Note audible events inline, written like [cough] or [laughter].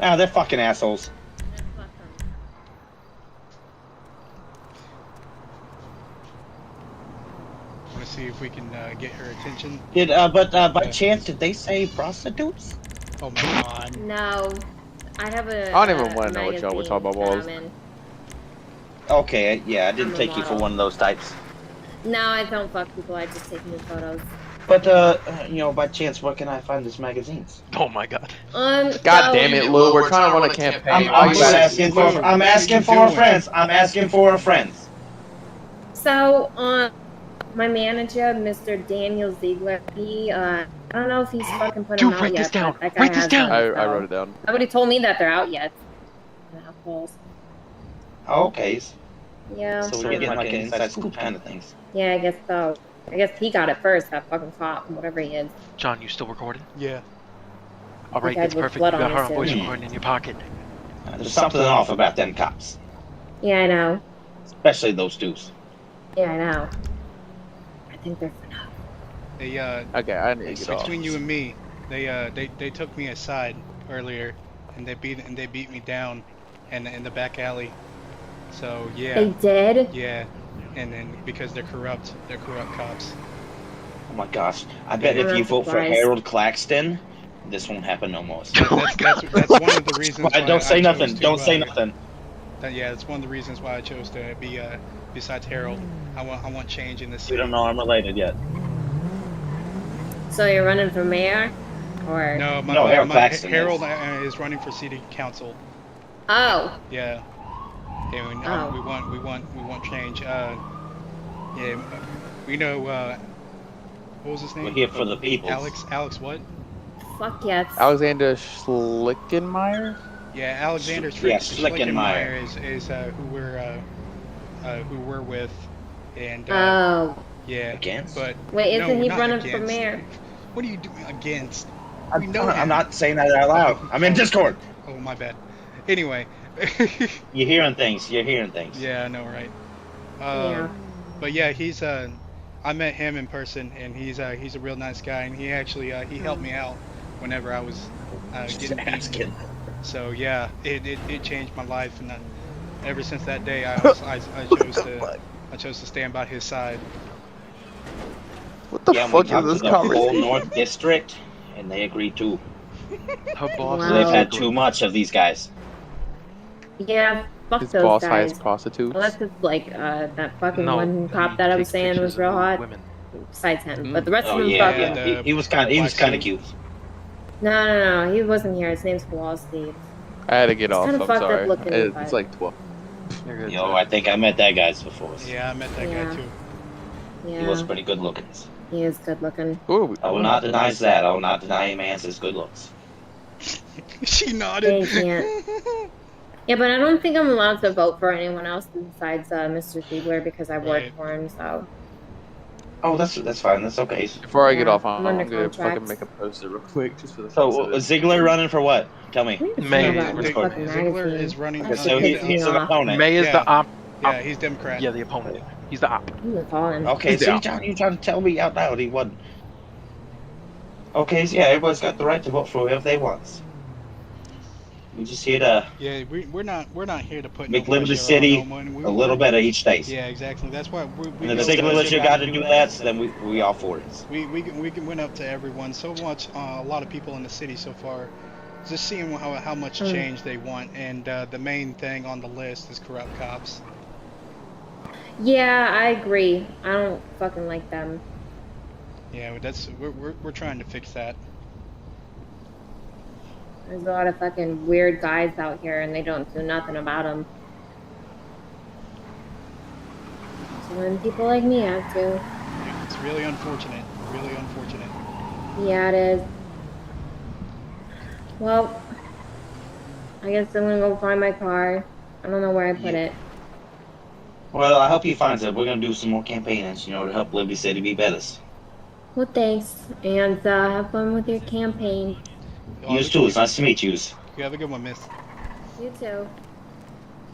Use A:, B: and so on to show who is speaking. A: Ah, they're fucking assholes.
B: Want to see if we can uh, get her attention?
A: Did uh, but uh, by chance did they say prostitutes?
B: Oh my god.
C: No, I have a.
D: I don't even
C: uh,
D: wanna know what y'all were
C: magazine
D: talking about
C: that I'm
D: balls.
C: in.
A: Okay, yeah, I
C: I'm
A: didn't
C: a
A: take you for
C: model.
A: one of those types.
C: No, I don't fuck people. I just take new photos.
A: But uh, you know, by chance, where can I find these magazines?
E: Oh my god.
C: Um.
D: God
C: so-
D: damn it, Lou. We're trying to run a campaign.
A: I'm,
D: Why
A: I'm
D: you
A: just
B: what-
D: gotta-
A: asking for.
B: what
A: I'm
B: are
A: asking
B: you
A: for a
B: doing?
A: friend. I'm asking for a friend.
C: So, um, my manager, Mr. Daniel Ziegler, he, uh, I don't know if he's fucking put
E: Dude,
C: them out
E: write
C: yet, but
E: this down.
C: that guy
E: Write this
C: has
E: down.
D: I,
C: them,
D: I
C: so-
D: wrote it down.
C: Nobody told me that they're out yet. Assholes.
A: Okay, so
C: Yeah.
A: we're getting like an inside scoop kind of things.
C: Yeah, I guess so. I guess he got it first, that fucking cop, whatever he is.
E: John, you still recording?
B: Yeah.
E: All right,
C: guy
E: that's
C: with
E: perfect. You
C: blood on
E: got her
C: his
E: on voice
A: hand.
E: recording in your pocket.
A: Uh, There's something off about them cops,
C: Yeah, I know.
A: especially those dudes.
C: Yeah, I know. I think they're
B: They uh,
D: Okay, I need to
B: It's
D: get off.
B: between you and me. They uh they, they took me aside earlier and they beat and they beat me down in in the back alley. So
C: They
B: yeah.
C: did?
B: Yeah. And then because they're corrupt, they're
A: [laughs]
B: corrupt cops.
A: Oh my gosh! I bet if you vote for
C: Surprise.
A: Harold Claxton, this won't happen no more.
E: Oh my
B: That's, that's, that's one of the reasons why
A: Don't
B: I
A: say
B: chose
A: nothing.
B: to,
A: Don't say
B: uh,
A: nothing.
B: that- yeah, that's one of the reasons why I chose to be uh besides Harold. I want I want change in this
A: We
B: city.
A: don't know I'm related yet.
C: So you're running for mayor? Or.
B: No, my,
A: No,
B: my,
A: Harold
B: my-
A: Claxton is.
B: Harold uh, is running for city council.
C: Oh.
B: Yeah. Yeah, we, uh,
C: Oh.
B: we want we want we want change. Uh, yeah, we know. Uh, what was his name?
A: We're here for the people.
B: Alex. Alex what?
C: Fuck yes.
D: Alexander Schlickenmeyer?
B: Yeah, Alexander
A: Sch-
B: Schlick-
A: yeah, Schlickenmeyer.
B: Schlickenmeyer is is uh, who we're uh, uh, who we're with, and uh,
C: Oh.
B: yeah.
A: Against?
B: But
C: Wait, isn't
B: no,
C: he
B: not
C: running for
B: against.
C: mayor?
B: [laughs] What are you doing against? We
A: I'm,
B: know
A: I'm
B: him.
A: not saying that out loud. I'm in Discord.
B: Oh my bad. [laughs] Anyway.
A: You're hearing things. You're hearing things.
B: yeah, I know, right? Uh,
C: yeah.
B: But yeah, he's uh, I met him in person, and he's uh, he's a real nice guy, and he actually uh, he helped me out whenever I was uh,
A: Just
B: getting beat.
A: asking.
B: So yeah, it, it, it changed my life, and uh ever since that day, I was, I,
A: [laughs]
B: I
A: Oh
B: chose to I chose to stand by his side.
D: What the
A: yeah, we
D: fuck
A: talked
D: is
A: to
D: this
A: the whole
D: conversation?
A: North District, and they agree too.
E: Her boss.
C: Wow.
A: They've had too much of these guys.
C: Yeah, fuck
D: His
C: those
D: boss
C: guys.
D: hires prostitutes.
C: Unless it's like uh, that fucking
E: No,
C: one cop
E: he
C: that I was
E: takes
C: saying was
E: pictures
C: real
E: of
C: hot.
E: Women.
C: Besides him,
D: Mm.
C: but the rest
A: Oh
C: of them
A: yeah,
C: fucking.
A: yeah. He, he was kind. He was kind of cute.
C: No, no, no, he wasn't here. His name's Kowalski.
D: I had to get
C: It's
D: off.
C: kinda
D: I'm
C: fucked up
D: sorry.
C: looking,
D: It-
C: but-
D: It's like 12.
E: You're good.
A: Yo, I think I met that guy's before.
B: Yeah, I met that
C: Yeah.
B: guy too. [laughs]
C: Yeah,
A: He was pretty good looking.
C: he is good looking.
D: Who are we?
A: I will not deny that. I will not deny a man's his good looks.
B: she
C: They
B: nodded. [laughs]
C: can't. [laughs] Yeah, but I don't think I'm allowed to vote for anyone else besides uh, Mr. Ziegler because I work
B: Right.
C: for him. So
A: Oh, that's that's fine. That's okay.
D: Before I get
C: Yeah,
D: off, I'm,
C: I'm under
D: I'm gonna fucking
C: contract.
D: make a poster real quick just for the
A: So
D: fucks
A: uh,
D: of
A: Ziggler running for what? Tell me.
C: We need to
E: May-
C: know about this
A: Ziegler-
C: fucking
B: Ziegler
C: magazine.
B: is running.
A: Okay,
C: That's
A: so
C: what
A: he,
C: pissed me
A: he's an
C: off.
A: opponent.
E: May is
B: Yeah.
E: the op.
B: yeah, he's Democrat.
E: Yeah, the opponent. He's the op.
C: I'm gonna call him.
A: Okay,
D: He's
A: see,
D: out.
A: John, you trying to tell me out loud he won. Okay, so yeah, everybody's got the right to vote for whoever they want. We just here to
B: Yeah, we, we're not we're not here to put
A: Make
B: no
A: Liberty
B: pressure on
A: City
B: no one. We-
A: a little bit of each state.
B: Yeah, exactly. That's why we. we
A: And
B: go
A: if Ziggler
B: to-
A: lets you got to do that, so then we we all for it.
B: We we we went up to everyone so much. Uh, a lot of people in the city so far, just seeing how how much
C: Mm.
B: change they want, and uh, the main thing on the list is corrupt cops.
C: Yeah, I agree. I don't fucking like them.
B: Yeah, that's we're we're, we're trying to fix that.
C: There's a lot of fucking weird guys out here, and they don't do nothing about them. So when people like me have to,
B: It's really unfortunate. Really unfortunate.
C: yeah, it is. Well, I guess I'm gonna go find my car. I don't know where I put it.
A: Well, I hope he finds it. We're gonna do some more campaigns, you know, to help Liberty City be better.
C: Well, thanks, and uh, have fun with your campaign.
B: Oh,
A: Yous too. It's nice to meet yous.
B: You have a good one, Miss.
C: You too.